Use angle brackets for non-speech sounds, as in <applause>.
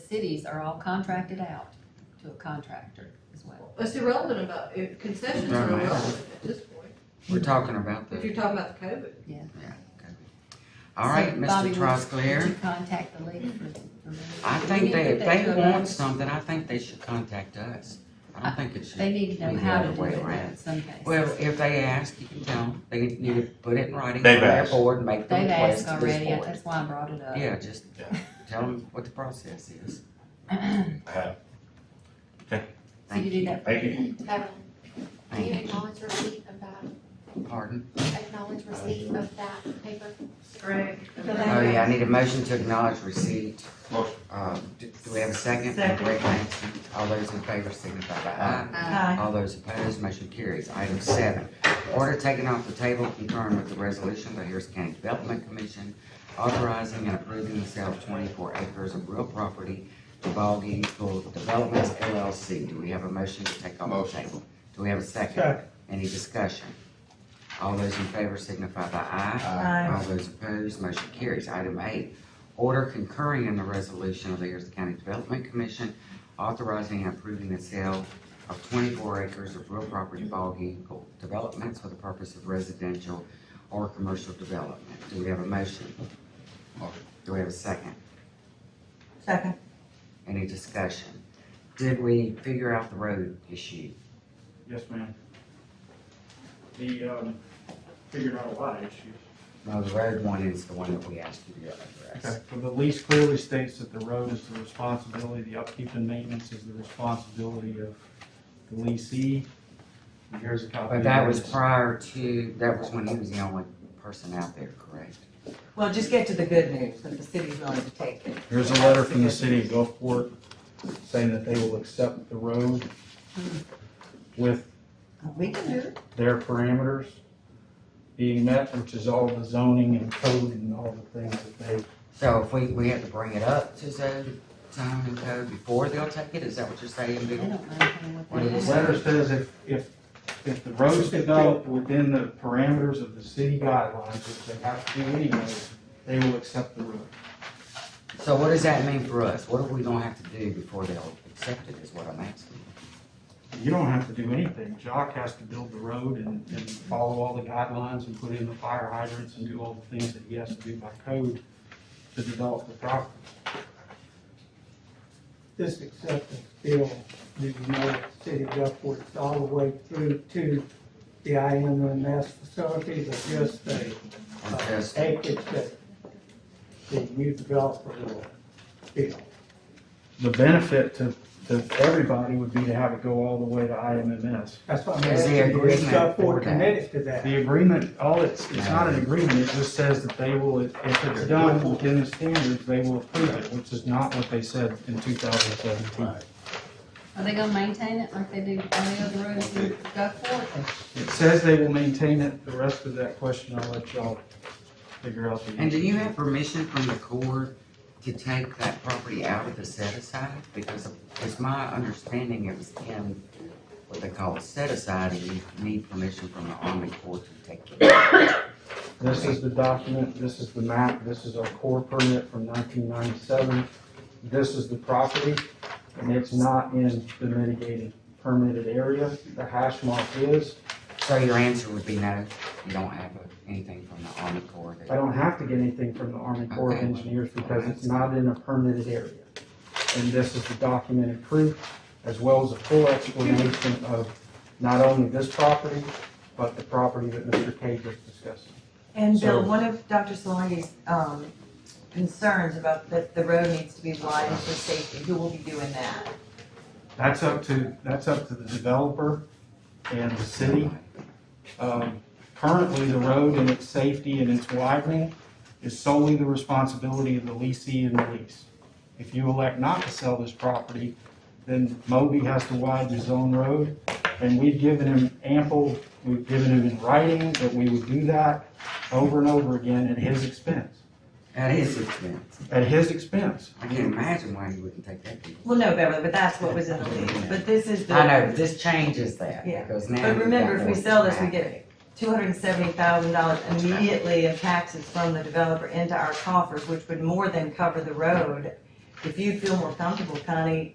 cities are all contracted out to a contractor as well. It's irrelevant about, if concessions are Right. irrelevant at this point, We're talking about if the, you're talking about the COVID. all right, So, Bobby, Mr. would- Would Trosclair. you contact the league for, for me? I We think need to they, put if they that to a vote. want something, I think they should contact us. I don't think it should. They need to know be the how other to do way it though, around. in some cases. Well, if they ask, you can tell them. They need to put it in writing They've on their asked. board and make the They've request asked to this already, board. that's why I brought it up. <clears throat> Yeah, just Yeah. tell them what the process is. I have. So you Thank do that. Thank you. Beverly, do you Thank you. acknowledge receipt of that, Pardon? acknowledge receipt of that paper? Right. Oh, yeah, I need a motion to acknowledge receipt. Motion. Uh, do do we have a second? Second. Rick Hanson. All those in favor signify by aye. Aye. All those opposed, motion carries. Item seven, order taken off the table concurrent with the resolution of the Harris County Development Commission authorizing and approving the sale of twenty-four acres of real property to Ballgame Pool Developments LLC. Do we have a motion to take off the Motion. table? Do we have a second? Second. Any discussion? All those in favor signify by aye. Aye. All those opposed, motion carries. Item eight, order concurring in the resolution of the Harris County Development Commission authorizing and approving the sale of twenty-four acres of real property ball vehicle developments for the purpose of residential or commercial development. Do we have a motion? Motion. Do we have a second? Second. Any discussion? Did we figure out the road issue? Yes, ma'am. The, um, figured out a lot of issues. No, the road one is the one that we asked you to address. So the lease clearly states that the road is the responsibility, the upkeep and maintenance is the responsibility of the leasee. And Here's a copy. But that was of this. prior to, that was when he was the only person out there, correct? Well, just get to the good news, that the city's willing to take it. Here's a letter from the city of Gulfport saying that they will accept the road with We can do it. their parameters being met, which is all the zoning and code and all the things that they, So if we, we have to bring it up to zone, time and code before they'll take it, is that what you're saying, I Vicki? don't know anything what where that the is. letter says if, if, if the road's developed within the parameters of the city guidelines, which they have to do anyway, they will accept the road. So what does that mean for us? What are we gonna have to do before they'll accept it is what I'm asking. You don't have to do anything. Jock has to build the road and, and follow all the guidelines and put in the fire hydrants and do all the things that he has to do by code to develop the property. this acceptance bill, do you know if the city of Gulfport is all the way through to the IMMS facilities or just the Or uh, just- acreage that the new developer will build? The benefit to, to everybody would be to have it go all the way to IMMS. That's what I'm Is asking, the is agreement for Gulfport that? committed to that? The agreement, all it's, it's not an agreement, it just says that they will, if it's done within the standards, they will approve it, which is not what they said in two thousand seventeen. Are they gonna maintain it like they do on the other roads in Gulfport? It says they will maintain it, the rest of that question, I'll let y'all figure out. the- And do you have permission from the court to take that property out of the set aside? Because it's my understanding it was in what they call a set aside and you need permission from the Army Corps to take it. This is the document, this is the map, this is our core permit from nineteen ninety-seven. This is the property, and it's not in the mitigated permitted area. The hash mark is, So your answer would be no, you don't have anything from the Army Corps I that, don't have to get anything from the Army Corps of Okay. Engineers because it's not in a permitted area. And this is the documented proof, as well as a full explanation of not only this property, but the property that Mr. K just discussed. And Bill, So- one of Dr. Solange's, um, concerns about that the road needs to be widened for safety, who will be doing that? That's up to, that's up to the developer and the city. Um, Currently, the road and its safety and its widening is solely the responsibility of the leasee and the lease. If you elect not to sell this property, then Moby has to widen his own road. And we've given him ample, we've given him in writing that we would do that over and over again at his expense, at his expense. at his expense. I can't imagine why he wouldn't take that. deal. Well, no, Beverly, but that's what was in the lease, but this is the. I know, but this changes that Yeah. because now. But you've remember, got if we more sell this, we traffic. get two hundred and seventy thousand dollars immediately in taxes from the developer into our coffers, which would more than cover the road if you feel more comfortable, Connie,